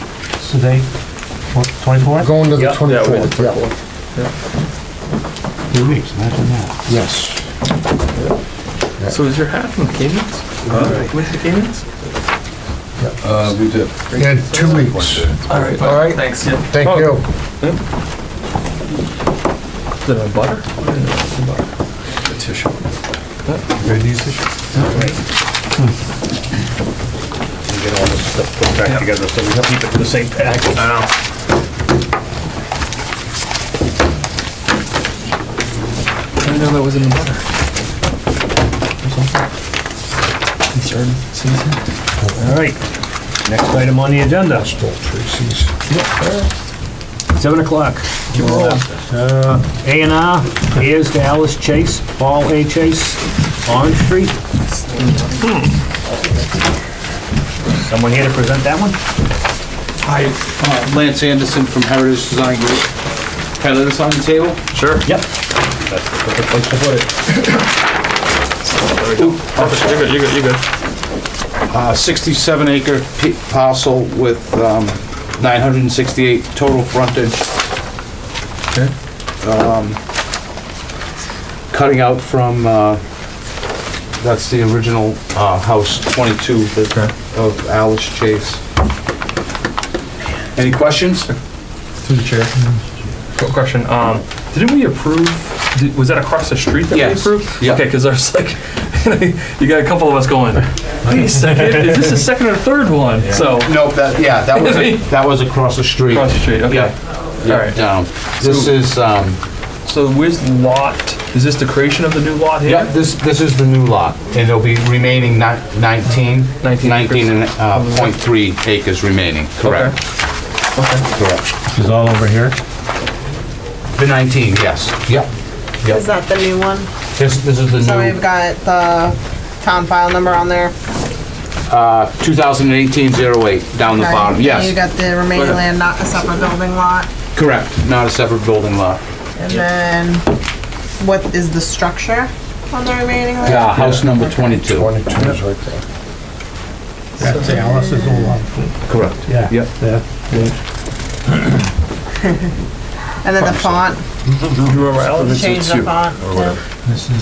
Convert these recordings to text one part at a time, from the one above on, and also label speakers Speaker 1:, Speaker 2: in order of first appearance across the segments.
Speaker 1: what's today? What, twenty-fourth?
Speaker 2: Going to the
Speaker 3: Yeah, that would be the
Speaker 2: 24th, yeah,
Speaker 1: Two weeks, imagine that.
Speaker 2: yes.
Speaker 4: So is your hat from Caymans? With the Caymans?
Speaker 5: Uh, we did.
Speaker 2: In two weeks.
Speaker 4: All right. Oh,
Speaker 2: All right.
Speaker 4: Thanks. Is
Speaker 2: Thank you.
Speaker 4: it a butter?
Speaker 5: A tissue. Ready to use tissue?
Speaker 3: We get all this stuff put back together, so we keep it in the same package.
Speaker 4: I know. I didn't know that was in the butter. Concern season?
Speaker 3: All right, next item on the agenda,
Speaker 2: Tracy's.
Speaker 3: seven o'clock. Uh, A and R, here's to Alice Chase, Paul A. Chase, Orange Street. Someone here to present that one?
Speaker 6: Hi, uh, Lance Anderson from Heritage Design Group. Can I lay this on the table? Sure.
Speaker 3: Yep. That's the perfect place to put it.
Speaker 6: You're good, you're good, you're good. Uh, 67 acre p- parcel with um, 968 total frontage. Um, Cutting out from, uh, that's the original uh, house, 22 that- of Alice Chase. Any questions?
Speaker 4: Through the chair. Quick question, um, didn't we approve, did- was that across the street that we
Speaker 6: Yes.
Speaker 4: approved?
Speaker 6: Yeah.
Speaker 4: Okay, cause there's like, you got a couple of us going, wait a second, is this the second or third one? So,
Speaker 6: Nope, that, yeah, that was, that was across the street.
Speaker 4: across the street, okay.
Speaker 6: Yeah,
Speaker 4: All right.
Speaker 6: down. This is, um,
Speaker 4: So where's the lot, is this the creation of the new lot here?
Speaker 6: yeah, this, this is the new lot, and there'll be remaining ni- nineteen,
Speaker 4: 19
Speaker 6: nineteen and, uh, point three acres remaining, correct? Correct.
Speaker 1: She's all over here.
Speaker 6: The nineteen, yes, yep.
Speaker 7: Is that the new one?
Speaker 6: This, this is
Speaker 7: So
Speaker 6: the
Speaker 7: we've
Speaker 6: new,
Speaker 7: got the town file number on there.
Speaker 6: two thousand and eighteen zero eight, down the
Speaker 7: Okay.
Speaker 6: bottom,
Speaker 7: And You
Speaker 6: yes,
Speaker 7: got the remaining land, not a separate building lot.
Speaker 6: correct, not a separate building lot.
Speaker 7: And then what is the structure on the remaining land?
Speaker 6: Yeah, house number twenty-two.
Speaker 2: 22 is right there.
Speaker 1: That's Alice's old one.
Speaker 6: Correct.
Speaker 1: Yeah.
Speaker 4: Yep.
Speaker 1: Yeah.
Speaker 7: And then the font, change the font.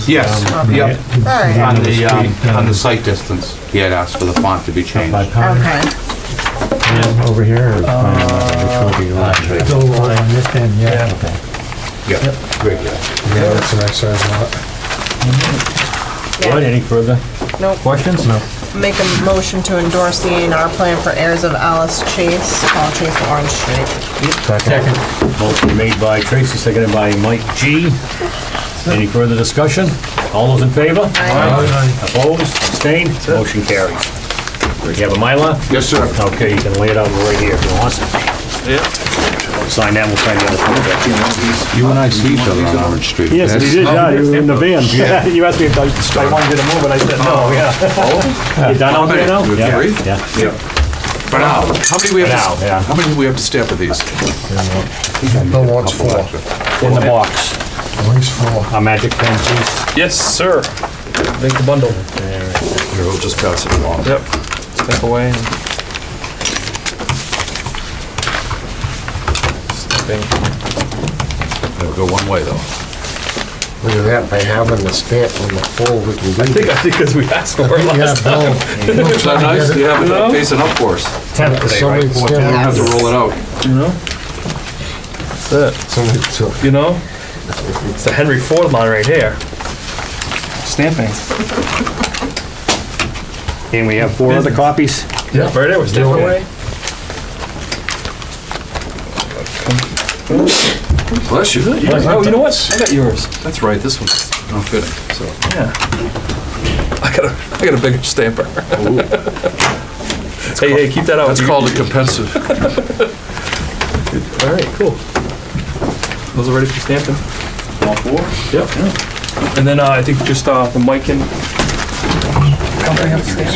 Speaker 6: Yes, yep,
Speaker 7: Alright,
Speaker 6: on Um, the, um, on the site distance, he had asked for the font to be changed.
Speaker 1: By Connor,
Speaker 7: okay.
Speaker 1: and over here. or- Go on this end, yeah.
Speaker 4: Yeah.
Speaker 1: Okay.
Speaker 6: Yeah, great, yeah.
Speaker 2: Yeah, that's a nice size lot.
Speaker 3: Lloyd, any further
Speaker 7: Nope.
Speaker 3: questions? No.
Speaker 7: Make a motion to endorse the A and R plan for heirs of Alice Chase, Paul Chase, Orange Street.
Speaker 3: Motion made by Tracy, seconded by Mike G. Any further discussion? All those in favor?
Speaker 1: Aye.
Speaker 3: Opposed, abstained, motion carries. You have a Mylar?
Speaker 6: Yes, sir.
Speaker 3: Okay, you can lay it out right here if you want. Yep. Sign that, we'll sign the other one.
Speaker 6: You and I see each other on Orange Street.
Speaker 3: Yes, you did, yeah, you were in the van. You asked me if I I wanted you to move, and I said no, yeah. You done out there now?
Speaker 5: Okay,
Speaker 3: Yeah,
Speaker 5: agree?
Speaker 3: Yeah.
Speaker 5: For now. How many we have
Speaker 3: For now,
Speaker 5: to,
Speaker 3: yeah.
Speaker 5: how many do we have to stamp of these?
Speaker 2: Bill wants four.
Speaker 3: In the box,
Speaker 2: At least four.
Speaker 3: a magic pen, please.
Speaker 4: Yes, sir. Make the bundle.
Speaker 5: Here, we'll just pass it along.
Speaker 4: Yep. Step away. and- Stepping.
Speaker 5: It'll go one way, though.
Speaker 2: Look at that, by having the stamp on the full, we can
Speaker 4: I
Speaker 2: leave
Speaker 4: think,
Speaker 2: it.
Speaker 4: I think because we asked for it
Speaker 2: Yeah,
Speaker 4: last time.
Speaker 2: Bill,
Speaker 5: Is that nice? You have it facing up for us.
Speaker 3: Tenth today,
Speaker 2: somebody
Speaker 3: right?
Speaker 2: stamped-
Speaker 5: You have to roll it out.
Speaker 4: You know? That's it,
Speaker 2: somebody took-
Speaker 4: you know? It's the Henry Ford line right here. Stamping.
Speaker 3: And we have four other copies.
Speaker 4: Yeah. Right there, we're stepping
Speaker 2: Yeah.
Speaker 4: away.
Speaker 5: Bless you.
Speaker 4: Oh, you know what? I got yours.
Speaker 5: That's right, this one's not fitting, so.
Speaker 4: Yeah. I got a, I got a bigger stamper. Hey, hey, keep that out.
Speaker 5: That's
Speaker 4: You-
Speaker 5: called a compensive.
Speaker 4: All right, cool. Those are ready for stamping.
Speaker 5: All four?
Speaker 4: Yep. And then uh, I think just uh, the mic and. Come bring up the stamp.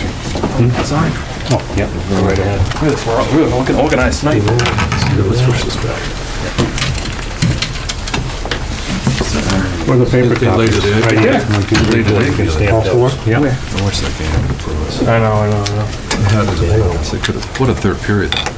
Speaker 4: Sorry.
Speaker 3: Yep, go right ahead.
Speaker 4: Oh, We're we're looking organized tonight.
Speaker 5: Let's push this back.
Speaker 3: Where the paper
Speaker 5: They laid it in.
Speaker 3: Right here.
Speaker 5: Laid it in.
Speaker 3: Stamp those. Yep.
Speaker 5: I wish that game.
Speaker 4: I know, I know, I know.
Speaker 5: What a third period.